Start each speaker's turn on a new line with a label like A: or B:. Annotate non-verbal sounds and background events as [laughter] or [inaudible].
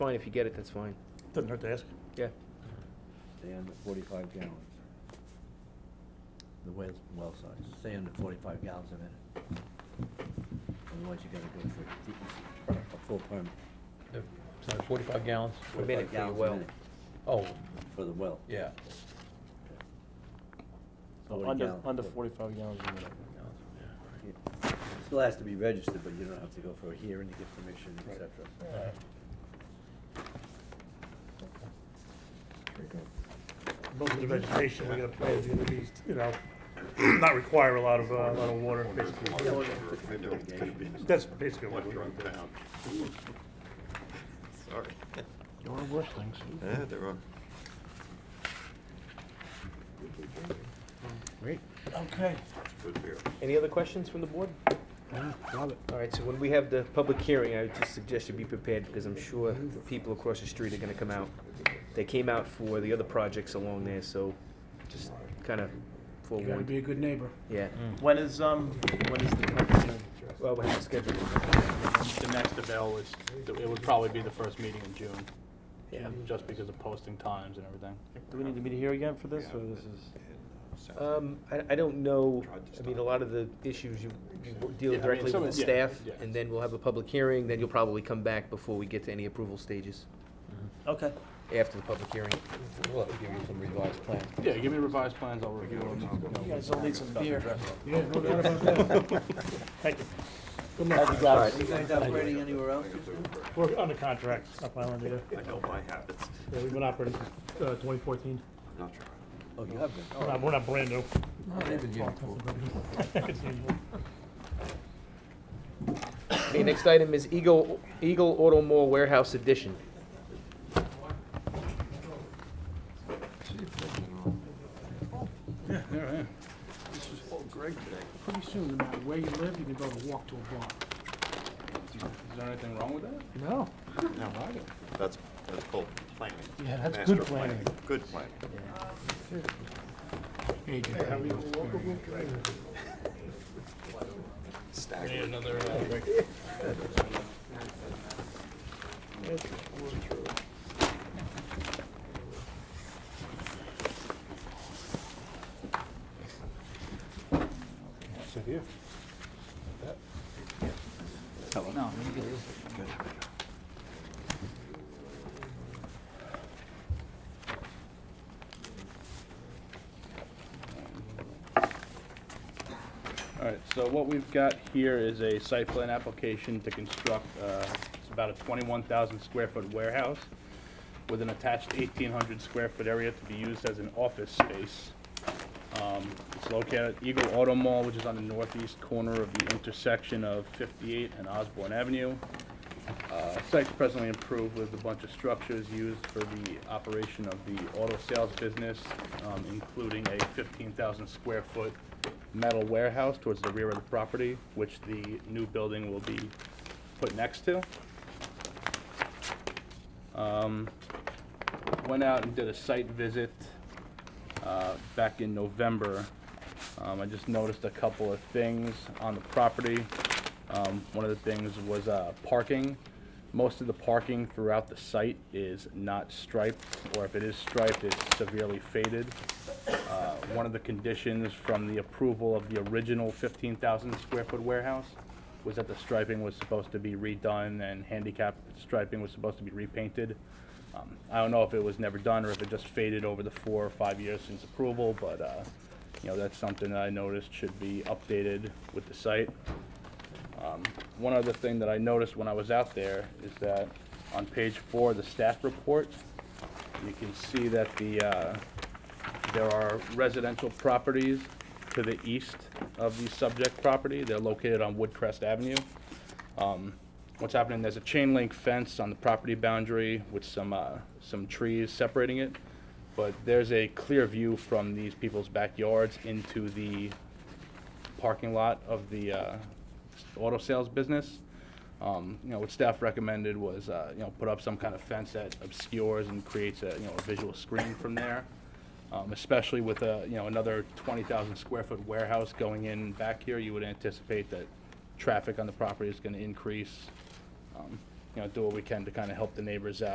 A: Fine, if you get it, that's fine.
B: Doesn't hurt to ask.
A: Yeah.
C: Stay under forty-five gallons. The well, well size, stay under forty-five gallons a minute. Otherwise you gotta go for a DEC, a full permit.
D: So 45 gallons?
A: A
C: 45
A: minute for your
C: gallons a
A: well.
C: minute
D: Oh,
C: For the well.
D: yeah.
C: Forty
E: Under,
C: gallons.
E: under forty-five gallons a minute.
C: Yeah. Still has to be registered, but you don't have to go for a hearing to get permission, et cetera.
B: Most of the vegetation we're gonna plant is gonna be, you know, [clears throat] not require a lot of, uh, a lot of water, basically.
C: Yeah, well, that's the irrigation.
B: That's basically what we're doing.
F: Wrong town. Sorry.
E: There are worse things.
F: Yeah, they're wrong.
E: Great.
B: Okay.
F: Good beer.
A: Any other questions from the board?
E: Love it.
A: All right, so when we have the public hearing, I would just suggest you be prepared, because I'm sure the people across the street are gonna come out. They came out for the other projects along there, so just kinda
G: You gotta
A: forewarned.
G: be a good neighbor.
A: Yeah,
H: Mm.
E: When is, um, when is the public hearing?
A: well, we have to schedule it.
H: The next avail is, it would probably be the first meeting in June. Yeah. Just because of posting times and everything.
E: Do we need to meet here again for this, or this is?
A: Um, I, I don't know,
F: Tried to
A: I mean, a
F: stop.
A: lot of the issues you you deal
H: Yeah, I mean,
A: directly
H: some
A: with
H: of
A: the
H: it- yeah,
A: staff,
H: yeah.
A: and then we'll have a public hearing, then you'll probably come back before we get to any approval stages,
E: Okay.
A: after the public hearing.
D: We'll have to give you some revised plans.
H: Yeah, give me revised plans, I'll review them.
E: You guys all need some beer.
G: Yeah, no doubt about that.
B: [laughs] Thank you.
E: Good night,
C: Are you guys operating anywhere else just now?
B: We're under contract, Stop Island, yeah.
F: I know my habits.
B: Yeah, we've been operating since, uh, twenty fourteen.
F: I'm not trying.
C: Oh, you have been.
B: We're not, we're not brand new.
A: [laughs]
B: [laughs]
A: Okay, next item is Eagle, Eagle Auto Mall Warehouse Edition.
G: Pretty soon, no matter where you live, you can go to walk to a bar.
H: Is there anything wrong with that?
E: No.
F: That's, that's called planning.
E: Yeah, that's
F: Master
E: good planning.
F: Good planning. Staggering.
H: Another, All right, so what we've got here is a site plan application to construct, uh, it's about a 21,000 square foot warehouse with an attached 1,800 square foot area to be used as an office space. Um, It's located at Eagle Auto Mall, which is on the northeast corner of the intersection of 58 and Osborne Avenue. Uh, Site's presently improved with a bunch of structures used for the operation of the auto sales business, um, including a 15,000 square foot metal warehouse towards the rear of the property, which the new building will be put next to. Um, Went out and did a site visit uh, back in November. Um, I just noticed a couple of things on the property. Um, One of the things was uh, parking. Most of the parking throughout the site is not striped, or if it is striped, it's severely faded. Uh, One of the conditions from the approval of the original 15,000 square foot warehouse was that the striping was supposed to be redone and handicap striping was supposed to be repainted. Um, I don't know if it was never done or if it just faded over the four or five years since approval, but, uh, you know, that's something that I noticed should be updated with the site. Um, One other thing that I noticed when I was out there is that on page four of the staff report, you can see that the, uh, there are residential properties to the east of the subject property. They're located on Woodcrest Avenue. Um, What's happening, there's a chain link fence on the property boundary with some, uh, some trees separating it. But there's a clear view from these people's backyards into the parking lot of the uh, auto sales business. Um, You know, what staff recommended was, uh, you know, put up some kind of fence that obscures and creates a, you know, a visual screen from there, Um, especially with a, you know, another 20,000 square foot warehouse going in back here, you would anticipate that traffic on the property is going to increase. Um, You know, do what we can to kind of help the neighbors out.